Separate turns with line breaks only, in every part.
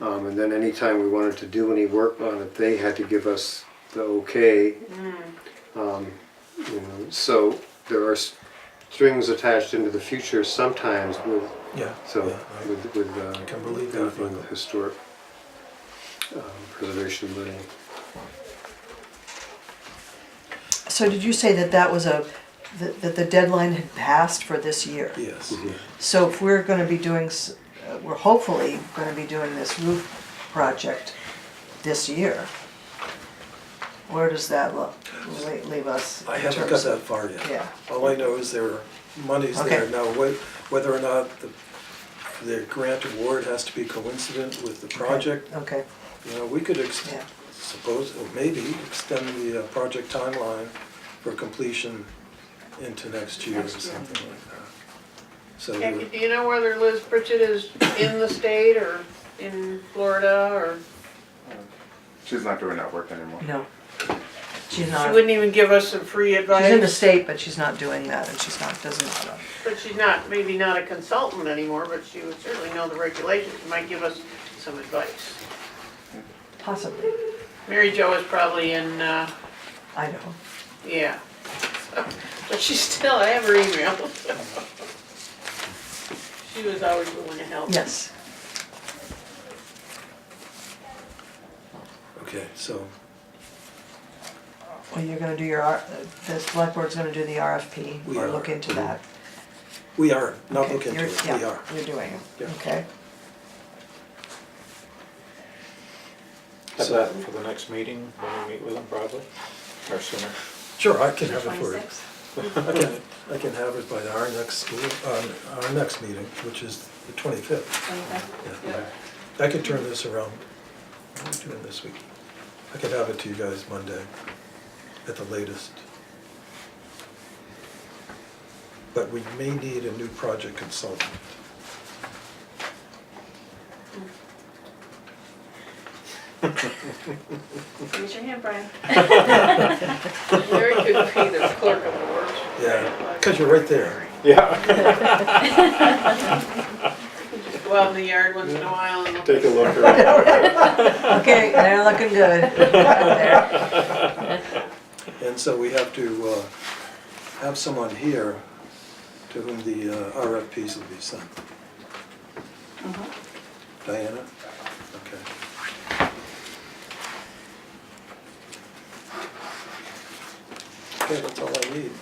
Um, and then anytime we wanted to do any work on it, they had to give us the okay.
Mm.
Um, you know, so there are s- strings attached into the future sometimes with,
Yeah.
so,
yeah, right.
with, with, uh,
can believe that.
with with historic um, preservation money.
So did you say that that was a, that that the deadline had passed for this year?
Yes.
So if we're gonna be doing, s- uh, we're hopefully gonna be doing this roof project this year, where does that lo- le- leave us?
I
in
haven't got
terms
that
of-
far yet.
Yeah.
All I know is there are monies there.
Okay.
Now, whe- whether or not the, the grant award has to be coincident with the project,
Okay,
you know, we could ex-
Yeah.
suppose, or maybe extend the uh, project timeline for completion into next year or
Next year.
something like that. So,
And
we're-
do you know whether Liz Pritchett is in the state or in Florida or?
She's not doing that work anymore.
no. She's
She
not, she's
wouldn't even give us some free
in the
advice,
state, but she's not doing that, and she's not, doesn't, uh,
but she's not, maybe not a consultant anymore, but she would certainly know the regulations, She might give us some advice.
possibly,
Mary Jo is probably in, uh,
I know.
yeah. But she's still, I have her email. She was always willing to help.
Yes,
okay, so,
well, you're gonna do your, R- uh, the select board's gonna do the RFP,
We
or
are.
look into that.
we are, not
Okay,
looking into
you're-
it,
yeah,
we are.
You're doing it,
Yeah.
okay.
Have
So-
that for the next meeting, when we meet with them probably, or sooner.
Sure, I can have it for you. I can, I can have it by our next school, uh, our next meeting, which is the twenty-fifth. I could turn this around, what are we doing this week? I could have it to you guys Monday at the latest. But we may need a new project consultant.
Raise your hand, Brian. Mm-hmm.
Mary could be the clerk of the works.
Yeah, because you're right there.
Yeah.
Just go out in the yard once in a while and look.
Take a look around.
Okay, they're looking good.
And so we have to uh, have someone here to whom the uh, RFPs will be sent. Diana? Okay. Okay, that's all I need.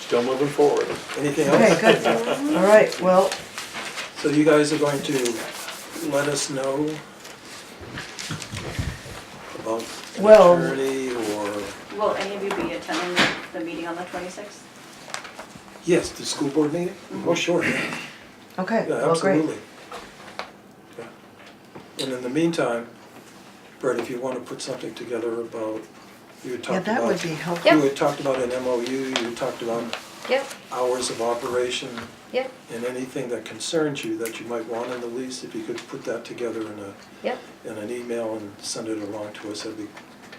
Still moving forward.
Anything
Okay,
else?
good. All right, well,
So you guys are going to let us know about an
Well-
attorney or,
Will any of you be attending the- the meeting on the 26th?
yes, the school board meeting? Oh, sure, yeah.
okay,
Yeah,
Mm-hmm. well, great.
absolutely. Yeah. And in the meantime, Brett, if you want to put something together about, you had
Yeah,
talked
that would
about,
be helpful.
you had talked about an MOU, you had talked about
Yep,
hours of operation
yep,
and anything that concerns you that you might want in the lease, if you could put that together in a,
yep,
in an email and send it along to us, that'd be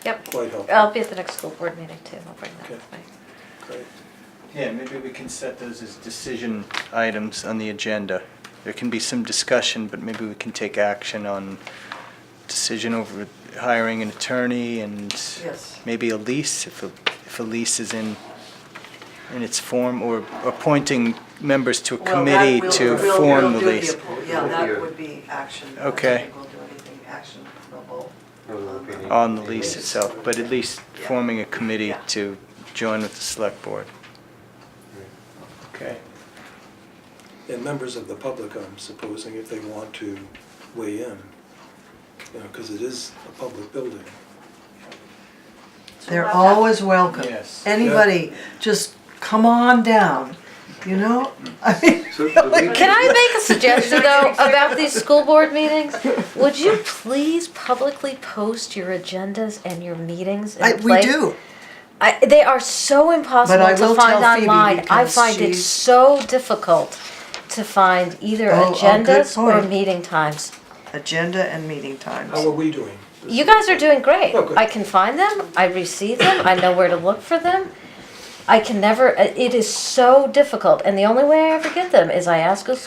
yep. Um,
quite helpful.
I'll be at the next school board meeting too, I'll bring that
Okay.
with me.
Great.
Yeah, maybe we can set those as decision items on the agenda. There can be some discussion, but maybe we can take action on decision over hiring an attorney and
Yes.
maybe a lease, if a, if a lease is in, in its form, or appointing members to a
Well, that
committee
will-
to
we'll-
form
we'll
the
do
lease.
appro- Yeah, that would be action. I don't
Okay.
think We'll do anything actionable.
On the lease itself, but at least
Yeah.
forming a committee
Yeah.
to join with the select board. Okay.
And members of the public, I'm supposing, if they want to weigh in, you know, because it is a public building.
So
They're
about that-
always welcome.
Yes.
Anybody, just come on down, you know? I mean,
So do we-
Can I make a suggestion though about these school board meetings? Would you please publicly post your agendas and your meetings in
I-
a
we
place?
do.
I, they are so impossible
But I will
to find
tell Phoebe
online. I
because
find it
she's-
so difficult to find either
Oh, oh, good
agendas or
point.
meeting times.
Agenda and meeting
How are
times.
we doing?
You guys are doing great.
Oh, good.
I can find them. I receive them. I know where to look for them. I can never. It is so difficult, and the only way I ever get them is I ask a